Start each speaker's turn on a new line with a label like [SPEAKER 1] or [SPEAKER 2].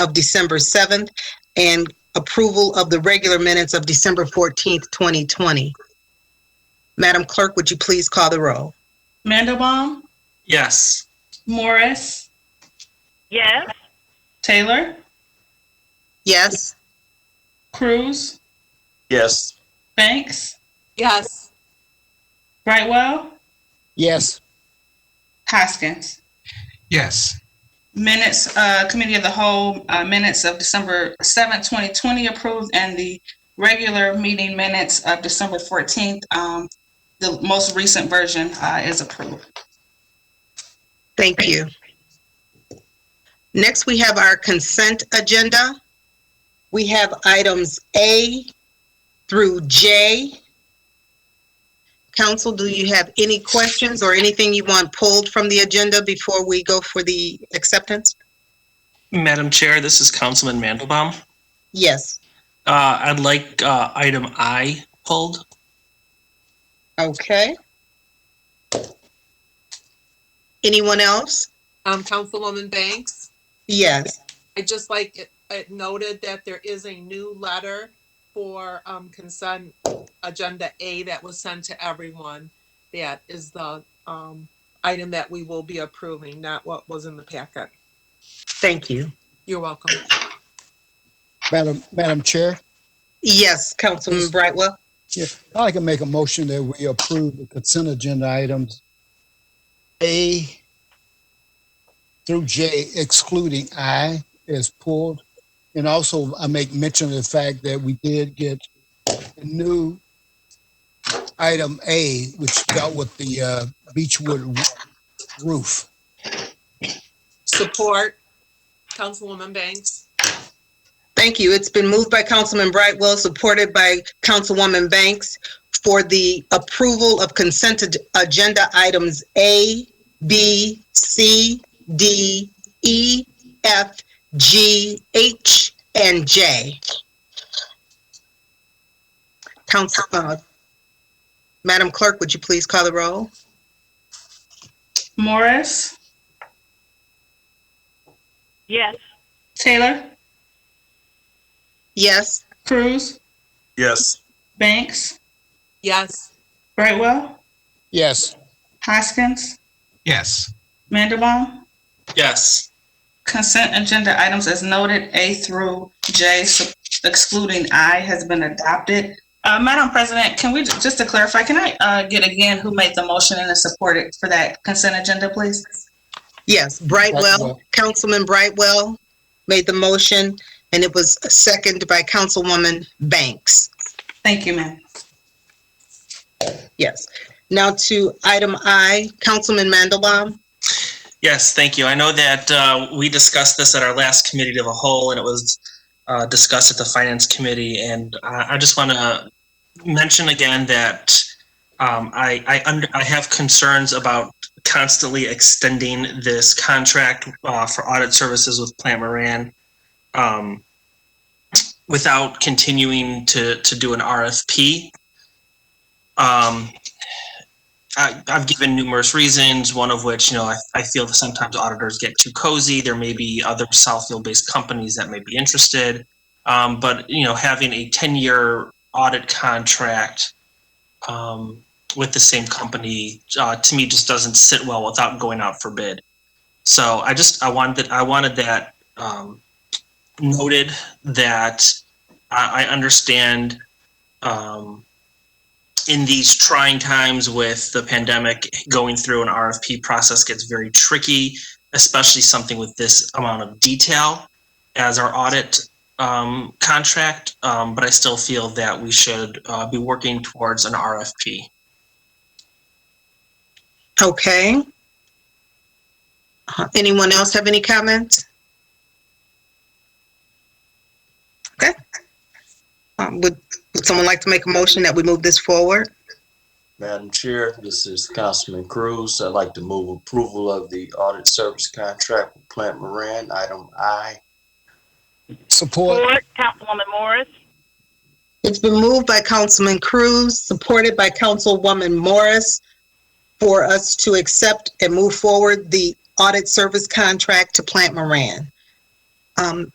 [SPEAKER 1] of December 7th and approval of the regular minutes of December 14th, 2020. Madam Clerk, would you please call the roll?
[SPEAKER 2] Mandelbaum,
[SPEAKER 3] Yes.
[SPEAKER 2] Morris,
[SPEAKER 4] Yes.
[SPEAKER 2] Taylor,
[SPEAKER 1] Yes?
[SPEAKER 2] Cruz,
[SPEAKER 3] Yes.
[SPEAKER 2] Banks,
[SPEAKER 5] Yes.
[SPEAKER 2] Brightwell,
[SPEAKER 6] Yes.
[SPEAKER 2] Hoskins.
[SPEAKER 6] Yes.
[SPEAKER 2] Minutes, uh, Committee of the Whole, uh, minutes of December seventh, twenty twenty approved and the regular meeting minutes of December fourteenth, um, the most recent version, uh, is approved.
[SPEAKER 1] Thank you. Next, we have our consent agenda. We have items A through J. Council, do you have any questions or anything you want pulled from the agenda before we go for the acceptance?
[SPEAKER 3] Madam Chair, this is Councilman Mandelbaum.
[SPEAKER 1] Yes,
[SPEAKER 3] Uh, I'd like uh, item I pulled.
[SPEAKER 1] okay. Anyone else?
[SPEAKER 5] Um, Councilwoman Banks,
[SPEAKER 1] Yes,
[SPEAKER 5] I just like it, it noted that there is a new letter for, um, consent agenda A that was sent to everyone. That is the, um, item that we will be approving, not what was in the packet.
[SPEAKER 1] thank you.
[SPEAKER 5] You're welcome.
[SPEAKER 6] Madam, Madam Chair,
[SPEAKER 1] Yes, Councilman Brightwell?
[SPEAKER 6] I'd like to make a motion that we approve the consent agenda items A through J excluding I is pulled. And also I make mention of the fact that we did get a new item A, which dealt with the uh, Beechwood roof.
[SPEAKER 5] Support, Councilwoman Banks.
[SPEAKER 1] Thank you. It's been moved by Councilman Brightwell, supported by Councilwoman Banks for the approval of consent ag- agenda items A, B, C, D, E, F, G, H, and J. Council, uh, Madam Clerk, would you please call the roll?
[SPEAKER 2] Morris,
[SPEAKER 4] Yes.
[SPEAKER 2] Taylor,
[SPEAKER 1] Yes?
[SPEAKER 2] Cruz,
[SPEAKER 3] Yes.
[SPEAKER 2] Banks,
[SPEAKER 5] Yes.
[SPEAKER 2] Brightwell,
[SPEAKER 6] Yes.
[SPEAKER 2] Hoskins,
[SPEAKER 6] Yes.
[SPEAKER 2] Mandelbaum,
[SPEAKER 3] Yes.
[SPEAKER 2] Consent agenda items as noted, A through J su- excluding I has been adopted. Uh, Madam President, can we, just to clarify, can I, uh, get again who made the motion and is supported for that consent agenda, please?
[SPEAKER 1] Yes, Brightwell,
[SPEAKER 6] Brightwell.
[SPEAKER 1] Councilman Brightwell made the motion, and it was seconded by Councilwoman Banks.
[SPEAKER 2] Thank you, ma'am.
[SPEAKER 1] Yes. Now to item I, Councilman Mandelbaum.
[SPEAKER 3] Yes, thank you. I know that uh, we discussed this at our last committee of the whole, and it was uh, discussed at the Finance Committee. And I I just want to mention again that um, I I under- I have concerns about constantly extending this contract uh, for audit services with Plant Moran um, without continuing to to do an RFP. Um, I, I've given numerous reasons, one of which, you know, I, I feel that sometimes auditors get too cozy. There may be other Southfield based companies that may be interested. Um, but, you know, having a 10 year audit contract um, with the same company uh, to me just doesn't sit well without going out for bid. So I just, I wanted, I wanted that um, noted that I, I understand. Um, in these trying times with the pandemic, going through an RFP process gets very tricky, especially something with this amount of detail as our audit um, contract. Um, but I still feel that we should uh, be working towards an RFP.
[SPEAKER 1] Okay. Uh, Anyone else have any comments? Okay. Um, Would, would someone like to make a motion that we move this forward?
[SPEAKER 7] Madam Chair, this is Councilman Cruz. I'd like to move approval of the audit service contract with Plant Moran, item I.
[SPEAKER 6] Support.
[SPEAKER 4] Ford, Councilwoman Morris.
[SPEAKER 1] It's been moved by Councilman Cruz, supported by Councilwoman Morris, for us to accept and move forward the audit service contract to Plant Moran. Um,